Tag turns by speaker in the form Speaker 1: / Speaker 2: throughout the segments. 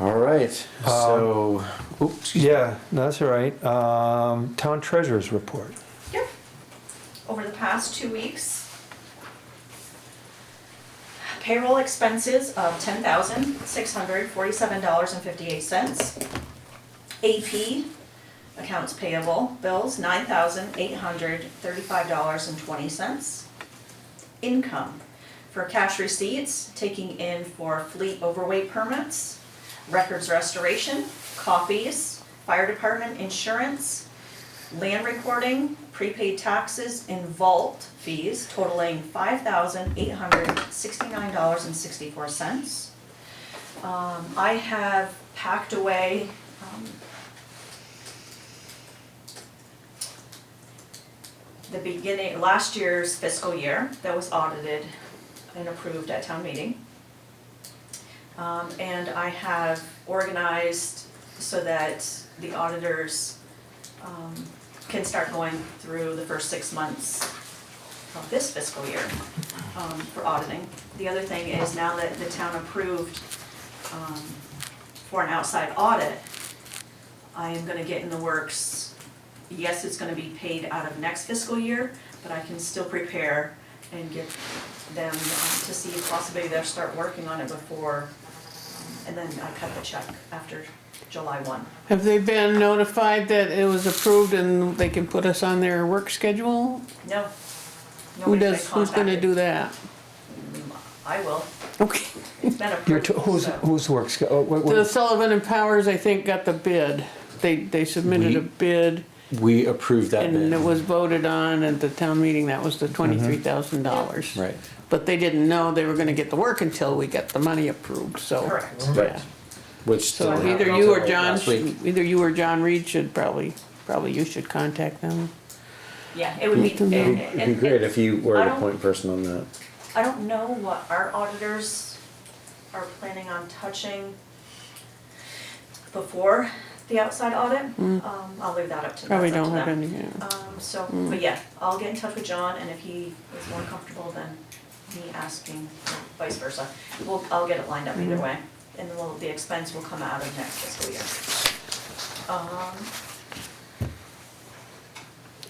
Speaker 1: All right,
Speaker 2: Um,
Speaker 1: so, oops,
Speaker 3: Yeah, no, that's all right. Um, Town treasurer's report.
Speaker 4: Yep. Over the past two weeks, payroll expenses of ten thousand, six hundred, forty-seven dollars and fifty-eight cents. AP, accounts payable, bills, nine thousand, eight hundred, thirty-five dollars and twenty cents. Income, for cash receipts, taking in for fleet overweight permits, records restoration, copies, fire department insurance, land recording, prepaid taxes, and vault fees totaling five thousand eight hundred sixty-nine dollars and sixty-four cents. Um, I have packed away, um, the beginning, last year's fiscal year that was audited and approved at town meeting. Um, and I have organized so that the auditors um, can start going through the first six months of this fiscal year um, for auditing. The other thing is now that the town approved um, for an outside audit, I am gonna get in the works. Yes, it's gonna be paid out of next fiscal year, but I can still prepare and get them um, to see if possibly they'll start working on it before, and then I cut the check after July one.
Speaker 2: Have they been notified that it was approved and they can put us on their work schedule?
Speaker 4: No.
Speaker 2: Who
Speaker 4: Nobody's been
Speaker 2: does, who's gonna
Speaker 4: contacted.
Speaker 2: do that?
Speaker 4: I will.
Speaker 2: Okay.
Speaker 4: It's been
Speaker 3: Your,
Speaker 4: approved,
Speaker 3: t- who's,
Speaker 4: so-
Speaker 3: who's works, oh, what- what-
Speaker 2: The Sullivan and Powers, I think, got the bid. They, they submitted a
Speaker 1: We-
Speaker 2: bid
Speaker 1: we approved that
Speaker 2: and it
Speaker 1: bid. Mm-hmm.
Speaker 2: was voted on at the town meeting. That was the twenty-three thousand dollars.
Speaker 1: Right,
Speaker 2: But they didn't know they were gonna get the work until we got the money approved, so.
Speaker 4: Correct.
Speaker 1: right, which
Speaker 2: So
Speaker 1: didn't
Speaker 2: either
Speaker 1: happen
Speaker 2: you or
Speaker 1: until
Speaker 2: John,
Speaker 1: last week.
Speaker 2: should- either you or John Reed should probably, probably you should contact them.
Speaker 4: Yeah, it would be.
Speaker 2: It'd be-
Speaker 1: It'd
Speaker 4: and-
Speaker 1: be-
Speaker 4: and-
Speaker 1: it'd be great if you were
Speaker 4: I
Speaker 1: the
Speaker 4: don't-
Speaker 1: point person on that.
Speaker 4: I don't know what our auditors are planning on touching before the outside audit. Um, I'll leave that up to,
Speaker 2: Probably
Speaker 4: that's up to
Speaker 2: don't have
Speaker 4: them.
Speaker 2: any, yeah.
Speaker 4: Um, so, but yeah, I'll get in touch with John and if he is more comfortable than me asking, vice versa. We'll, I'll get it lined up either way and we'll, the expense will come out of next fiscal year. Um,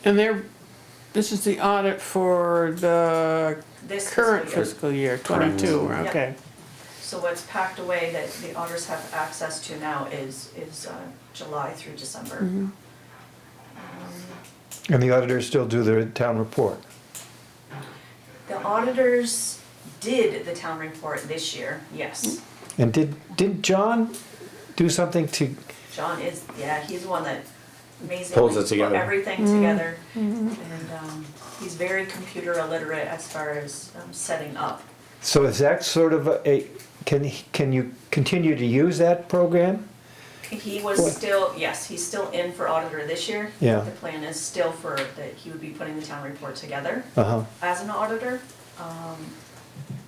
Speaker 2: And they're, this is the audit for the
Speaker 4: this fiscal
Speaker 2: current
Speaker 4: year.
Speaker 2: fiscal year, twenty-two,
Speaker 1: Correct.
Speaker 4: Yep.
Speaker 2: okay.
Speaker 4: So what's packed away that the auditors have access to now is, is uh, July through December.
Speaker 3: and the auditors still do their town report.
Speaker 4: The auditors did the town report this year, yes.
Speaker 3: And did, did John do something to,
Speaker 4: John is, yeah, he's the one that amazingly
Speaker 1: Pulls it
Speaker 4: put
Speaker 1: together.
Speaker 4: everything together. And um, he's very computer illiterate as far as um, setting up.
Speaker 3: so is that sort of a, can, he- can you continue to use that program?
Speaker 4: He was still, yes, he's still in for auditor this year.
Speaker 3: Yeah.
Speaker 4: The plan is still for, that he would be putting the town report together
Speaker 3: Uh-huh,
Speaker 4: as an auditor. Um,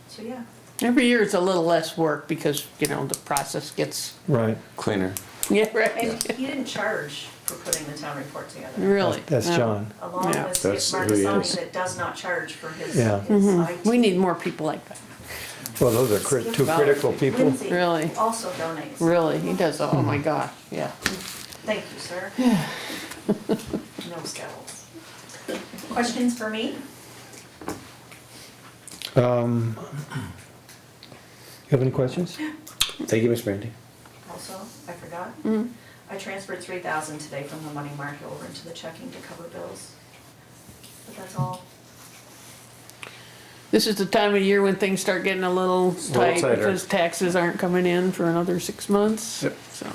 Speaker 4: So yeah.
Speaker 2: Every year it's a little less work because, you know, the process gets,
Speaker 3: right.
Speaker 1: Cleaner.
Speaker 2: yeah, Mm-hmm. right,
Speaker 4: And he didn't charge for putting the town report together,
Speaker 2: really. Uh,
Speaker 3: That's
Speaker 2: yeah.
Speaker 3: John.
Speaker 4: along
Speaker 2: Yeah.
Speaker 4: with Skip
Speaker 1: That's who he is.
Speaker 4: Marcassani that does not charge for his, his
Speaker 3: Yeah.
Speaker 4: IT.
Speaker 2: Mm-hmm. We need more people like that,
Speaker 3: Well, those are crit- two
Speaker 4: Well,
Speaker 3: critical people.
Speaker 4: Lindsay
Speaker 2: Really?
Speaker 4: also donates.
Speaker 2: really, he does, oh my gosh, yeah.
Speaker 4: Thank you, sir. No scowls. Questions for me?
Speaker 3: Um, You have any questions?
Speaker 1: Thank you, Miss Brandy.
Speaker 4: Also, I forgot.
Speaker 2: Mm-hmm.
Speaker 4: I transferred three thousand today from the money market over into the checking to cover bills. But that's all.
Speaker 2: This is the time of year when things start getting a little
Speaker 1: little
Speaker 2: tight
Speaker 1: tighter.
Speaker 2: because taxes aren't coming in for another six months,
Speaker 1: Yep.
Speaker 2: so.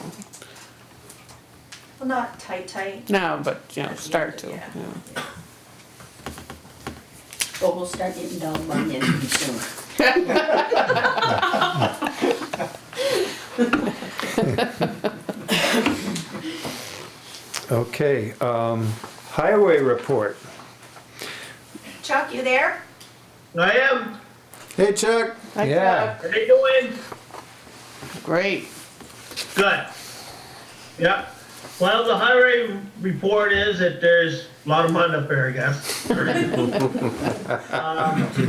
Speaker 4: Well, not tight, tight.
Speaker 2: No, but, you know,
Speaker 4: but
Speaker 2: start to,
Speaker 4: yeah.
Speaker 2: yeah.
Speaker 5: But we'll start getting dog by the end of December.
Speaker 3: Okay, um, highway report.
Speaker 4: Chuck, you there?
Speaker 6: I am.
Speaker 1: Hey, Chuck.
Speaker 2: Hi,
Speaker 3: Yeah.
Speaker 6: How you doing?
Speaker 2: Chuck. Great,
Speaker 6: Good. Yep. Well, the highway report is that there's a lot of money up there, I guess.
Speaker 3: There's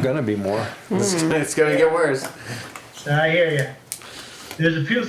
Speaker 3: gonna be more.
Speaker 1: It's gonna get worse.
Speaker 6: I hear you. There's a few